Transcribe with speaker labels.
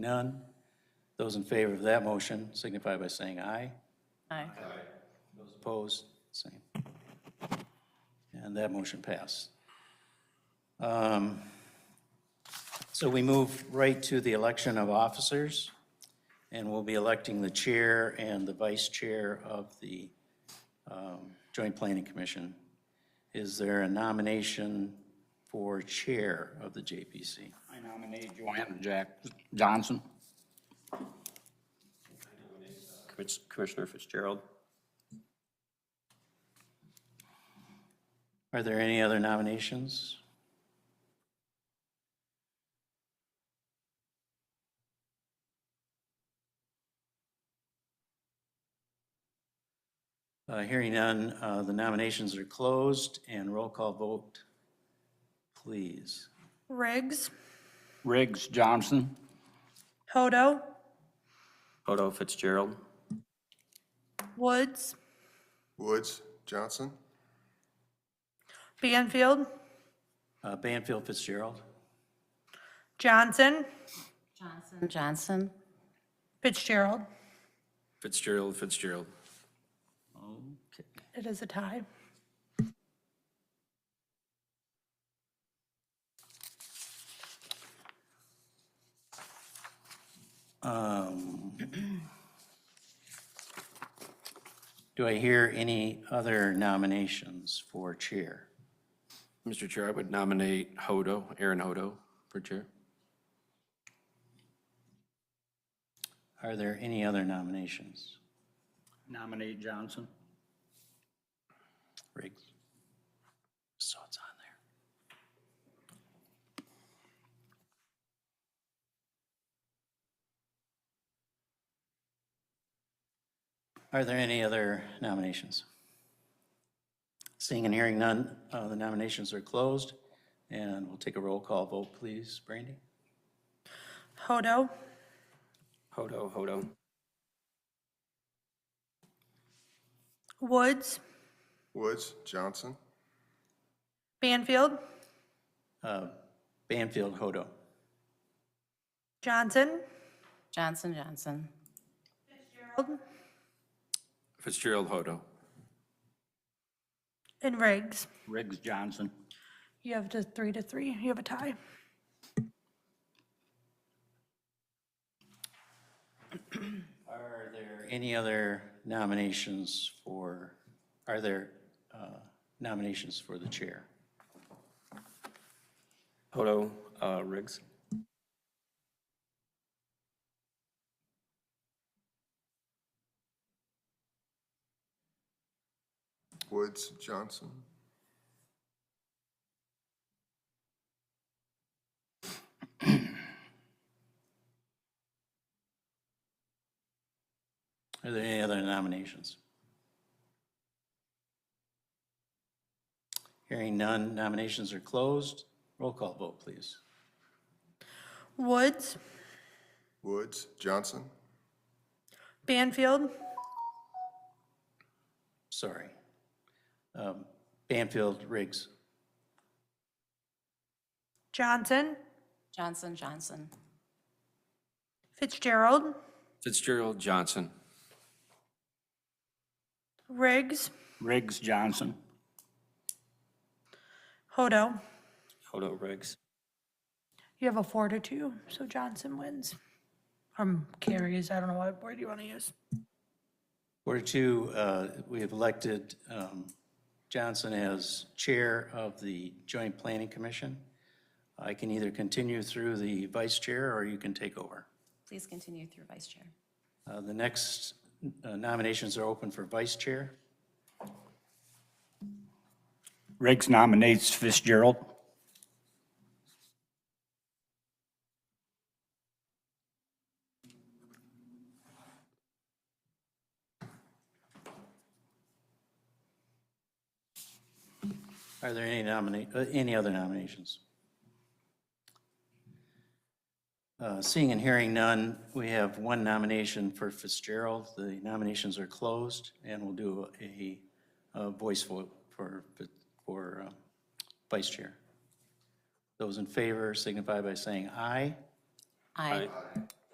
Speaker 1: None. Those in favor of that motion signify by saying aye.
Speaker 2: Aye.
Speaker 1: Those opposed, same. And that motion passed. Um, So we move right to the election of officers, and we'll be electing the chair and the vice chair of the um, Joint Planning Commission. Is there a nomination for chair of the JPC?
Speaker 3: I nominate Joanna Jack Johnson.
Speaker 4: Commis- Commissioner Fitzgerald.
Speaker 1: Are there any other nominations? Uh, Hearing none, uh, the nominations are closed and roll call vote, please.
Speaker 2: Riggs,
Speaker 3: Riggs Johnson.
Speaker 2: Hodo,
Speaker 4: Hodo Fitzgerald.
Speaker 2: Woods,
Speaker 5: Woods, Johnson,
Speaker 2: Banfield,
Speaker 1: Uh, Banfield Fitzgerald,
Speaker 2: Johnson,
Speaker 6: Johnson,
Speaker 2: Fitzgerald.
Speaker 4: Fitzgerald, Fitzgerald.
Speaker 2: It is a tie.
Speaker 1: Um, Do I hear any other nominations for chair?
Speaker 7: Mr. Chair, I would nominate Hodo, Aaron Hodo, for chair.
Speaker 1: Are there any other nominations?
Speaker 3: Nominate Johnson.
Speaker 1: Riggs. So it's on there. Are there any other nominations? Seeing and hearing none, uh, the nominations are closed, and we'll take a roll call vote, please. Brandy?
Speaker 2: Hodo,
Speaker 4: Hodo, Hodo.
Speaker 2: Woods,
Speaker 5: Woods, Johnson,
Speaker 2: Banfield,
Speaker 1: Uh, Banfield Hodo.
Speaker 2: Johnson,
Speaker 6: Johnson, Johnson,
Speaker 2: Gerald,
Speaker 7: Fitzgerald Hodo.
Speaker 2: and Riggs.
Speaker 3: Riggs Johnson.
Speaker 2: You have to three to three. You have a tie.
Speaker 1: Are there any other nominations for, are there uh, nominations for the chair?
Speaker 4: Hodo uh, Riggs.
Speaker 5: Woods, Johnson,
Speaker 1: Are there any other nominations? Hearing none, nominations are closed. Roll call vote, please.
Speaker 2: Woods,
Speaker 5: Woods, Johnson,
Speaker 2: Banfield,
Speaker 1: Sorry. Um, Banfield, Riggs,
Speaker 2: Johnson,
Speaker 6: Johnson, Johnson,
Speaker 2: Fitzgerald,
Speaker 7: Fitzgerald Johnson.
Speaker 2: Riggs,
Speaker 3: Riggs Johnson.
Speaker 2: Hodo.
Speaker 4: Hodo Riggs.
Speaker 2: You have a four to two, so Johnson wins. Um, carries, I don't know what word you want to use.
Speaker 1: Order two, uh, we have elected um, Johnson as Chair of the Joint Planning Commission. I can either continue through the Vice Chair, or you can take over.
Speaker 6: please continue through Vice Chair.
Speaker 1: Uh, The next uh, nominations are open for Vice Chair.
Speaker 3: Riggs nominates Fitzgerald.
Speaker 1: Are there any nominate, any other nominations? Uh, Seeing and hearing none, we have one nomination for Fitzgerald. The nominations are closed, and we'll do a uh, voice vote for, for uh, vice chair. Those in favor signify by saying aye.
Speaker 6: Aye.